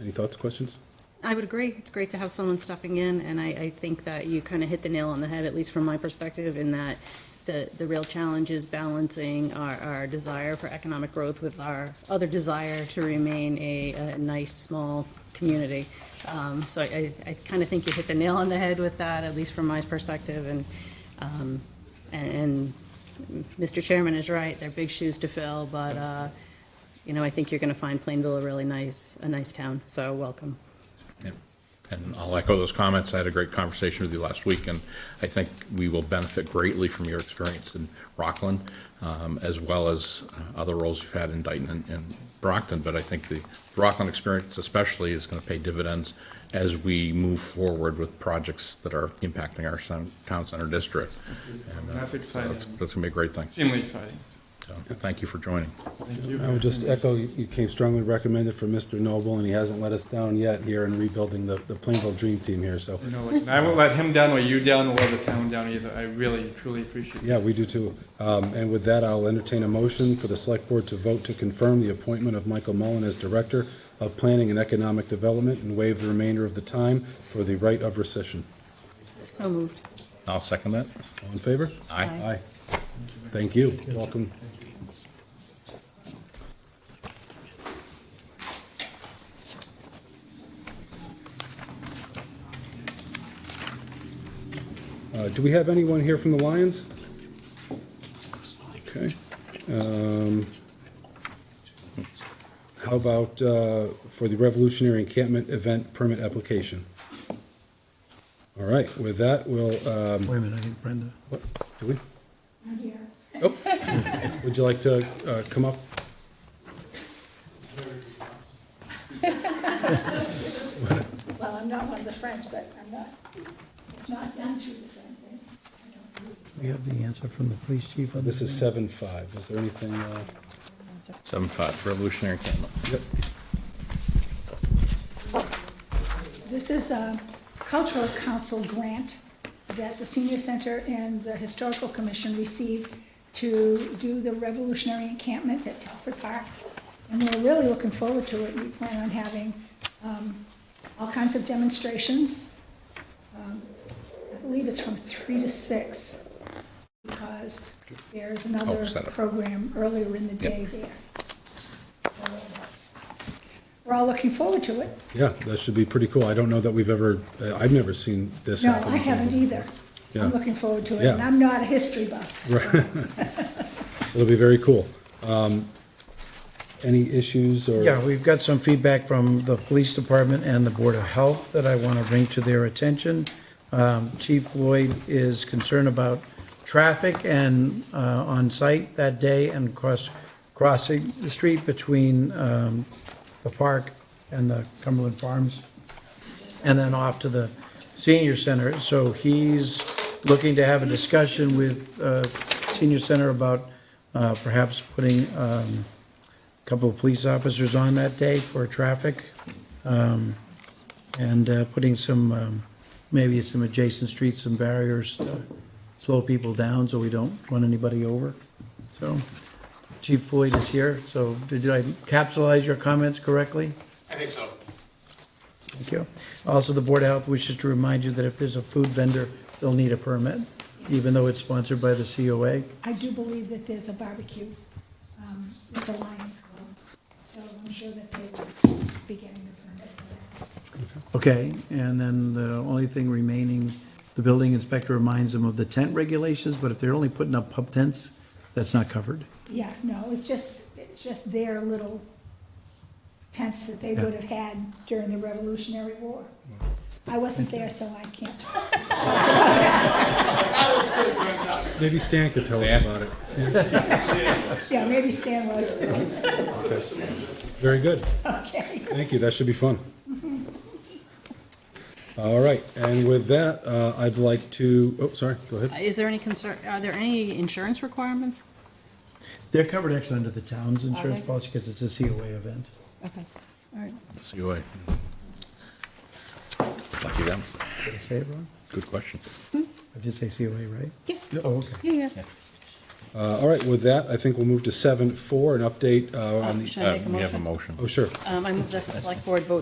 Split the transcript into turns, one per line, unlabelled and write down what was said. Any thoughts, questions?
I would agree. It's great to have someone stepping in, and I, I think that you kind of hit the nail on the head, at least from my perspective, in that the, the real challenge is balancing our, our desire for economic growth with our other desire to remain a, a nice, small community. Um, so I, I kind of think you hit the nail on the head with that, at least from my perspective, and, um, and, and Mr. Chairman is right, they're big shoes to fill, but, uh, you know, I think you're going to find Plainville a really nice, a nice town, so welcome.
Yeah. And I'll echo those comments. I had a great conversation with you last week, and I think we will benefit greatly from your experience in Rockland, um, as well as uh, other roles you've had in Dayton and- and Brockton. But I think the Rockland experience especially is going to pay dividends as we move forward with projects that are impacting our son- town center district. And, uh,
That's exciting.
That's going to be a great thing.
Extremely exciting.
So, Thank you for joining.
Thank you.
I would just echo, you you came strongly recommended for Mr. Noble, and he hasn't let us down yet here in rebuilding the, the Plainville Dream Team here, so,
You know, like, and I won't let him down or you down or the town down either. I really, truly appreciate it.
yeah, we do too. Um, and with that, I'll entertain a motion for the select board to vote to confirm the appointment of Michael Mullen as Director of Planning and Economic Development and waive the remainder of the time for the right of recession.
So moved.
I'll second that.
All in favor?
Aye.
Aye. Thank you, welcome. Uh, Do we have anyone here from the Lions? Okay. Um, How about uh, for the Revolutionary Encampment Event Permit Application? All right, with that, we'll, um,
Wait a minute, I think Brenda.
what, do we? I'm here. Oh, would you like to, uh, come up?
Well, I'm not one of the friends, but I'm not, it's not done through the friends. eh? I don't believe it's-
We have the answer from the police chief on
This
this.
is seven five, is there anything, uh,
Seven five, Revolutionary Candle.
yep,
This is a cultural council grant that the senior center and the historical commission received to do the revolutionary encampment at Telford Park. And we're really looking forward to it. We plan on having um, all kinds of demonstrations. Um, I believe it's from three to six because there's another
Oh, set up.
program earlier in the day there. So, We're all looking forward to it.
yeah, that should be pretty cool, I don't know that we've ever, uh, I've never seen this
No,
happen.
I haven't either.
Yeah.
I'm looking forward to it,
Yeah.
and I'm not a history buff.
It'll be very cool. Um, any issues or?
Yeah, we've got some feedback from the police department and the Board of Health that I want to bring to their attention. Um, Chief Floyd is concerned about traffic and uh, on-site that day and cross, crossing the street between um, the park and the Cumberland Farms and then off to the senior center. So he's looking to have a discussion with uh, senior center about uh, perhaps putting um, a couple of police officers on that day for traffic um, and uh, putting some, um, maybe some adjacent streets, some barriers to slow people down so we don't run anybody over. So Chief Floyd is here, so did I capsulize your comments correctly?
I think so.
Thank you. Also, the Board of Health wishes to remind you that if there's a food vendor, they'll need a permit, even though it's sponsored by the COA.
I do believe that there's a barbecue um, at the Lions Club, so I'm sure that they will be getting a permit for that.
Okay, and then the only thing remaining, the building inspector reminds them of the tent regulations, but if they're only putting up pub tents, that's not covered.
Yeah, no, it's just, it's just their little tents that they would have had during the Revolutionary War. I wasn't there, so I can't.
Maybe Stan could tell us about it. Stan?
Yeah, maybe Stan was,
Very good.
okay.
Thank you, that should be fun. All right, and with that, uh, I'd like to, oh, sorry, go ahead.
Uh, Is there any concern, are there any insurance requirements?
They're covered actually under the town's insurance
they?
policy because it's a COA event.
Okay, all right.
COA. Lucky them.
Did I say it wrong?
Good question.
I did say COA, right?
Yeah,
Oh, okay.
yeah, yeah.
Uh, All right, with that, I think we'll move to seven four, an update uh, on the,
Should I make a
Uh, We have a
motion?
motion.
oh, sure.
Um, I move that the select board vote